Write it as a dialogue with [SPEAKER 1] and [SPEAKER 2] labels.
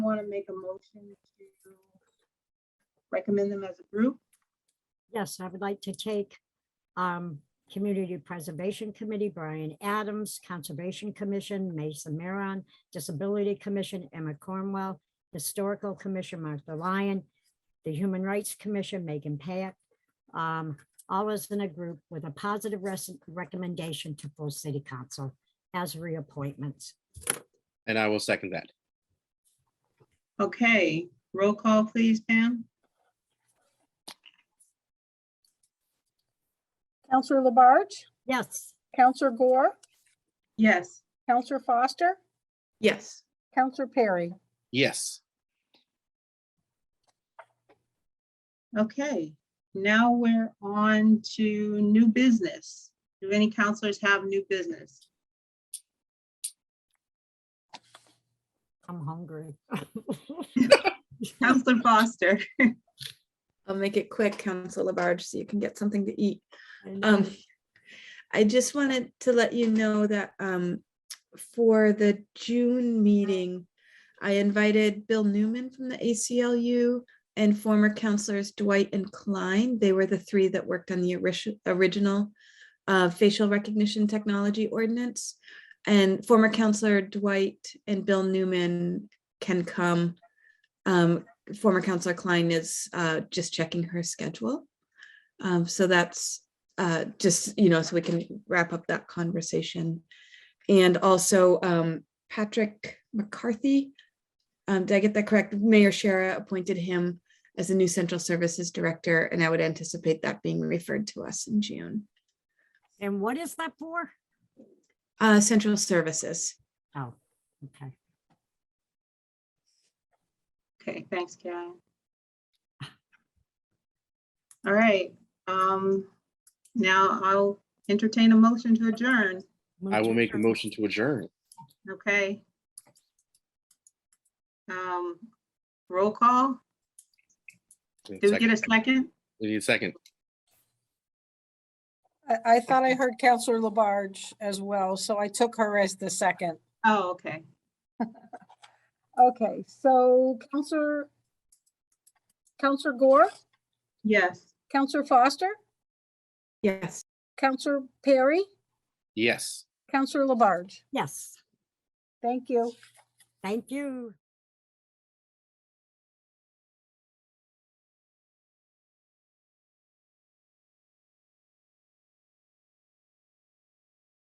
[SPEAKER 1] want to make a motion to recommend them as a group?
[SPEAKER 2] Yes, I would like to take um, Community Preservation Committee, Brian Adams, Conservation Commission, Mason Maron, Disability Commission, Emma Cornwell, Historical Commission, Martha Lyon, the Human Rights Commission, Megan Pack, um, all as in a group with a positive res- recommendation to full city council as reappointments.
[SPEAKER 3] And I will second that.
[SPEAKER 1] Okay, roll call, please, Pam?
[SPEAKER 4] Counselor Labarge,
[SPEAKER 2] Yes,
[SPEAKER 4] Counselor Gore,
[SPEAKER 1] Yes,
[SPEAKER 4] Counselor Foster,
[SPEAKER 5] Yes,
[SPEAKER 4] Counselor Perry.
[SPEAKER 3] Yes,
[SPEAKER 1] okay. Now we're on to new business. Do any counselors have new business?
[SPEAKER 2] I'm hungry.
[SPEAKER 1] Counselor Foster,
[SPEAKER 5] I'll make it quick, Council Labarge, so you can get something to eat.
[SPEAKER 2] And
[SPEAKER 5] Um, I just wanted to let you know that, um, for the June meeting, I invited Bill Newman from the ACLU and former counselors Dwight and Klein. They were the three that worked on the oris- original uh, facial recognition technology ordinance. And former counselor Dwight and Bill Newman can come. Um, Former counselor Klein is uh, just checking her schedule. Um, So that's uh, just, you know, so we can wrap up that conversation. And also um, Patrick McCarthy, um, did I get that correct? Mayor Shara appointed him as the new Central Services Director, and I would anticipate that being referred to us in June.
[SPEAKER 2] and what is that for?
[SPEAKER 5] Uh, Central Services.
[SPEAKER 2] Oh, okay.
[SPEAKER 1] okay, thanks, Karen. All right, um, now I'll entertain a motion to adjourn,
[SPEAKER 2] Move
[SPEAKER 3] I will
[SPEAKER 2] to
[SPEAKER 3] make a
[SPEAKER 2] adjourn.
[SPEAKER 3] motion to adjourn.
[SPEAKER 1] okay? Um, roll call,
[SPEAKER 3] We need a
[SPEAKER 1] did we get a
[SPEAKER 3] second.
[SPEAKER 1] second?
[SPEAKER 3] We need a second.
[SPEAKER 4] I, I thought I heard Counselor Labarge as well, so I took her as the second.
[SPEAKER 1] Oh, okay,
[SPEAKER 4] Okay, so Counselor, Counselor Gore,
[SPEAKER 1] yes.
[SPEAKER 4] Counselor Foster,
[SPEAKER 5] Yes.
[SPEAKER 4] Counselor Perry,
[SPEAKER 3] Yes.
[SPEAKER 4] Counselor Labarge.
[SPEAKER 2] Yes,
[SPEAKER 4] Thank you.
[SPEAKER 2] thank you.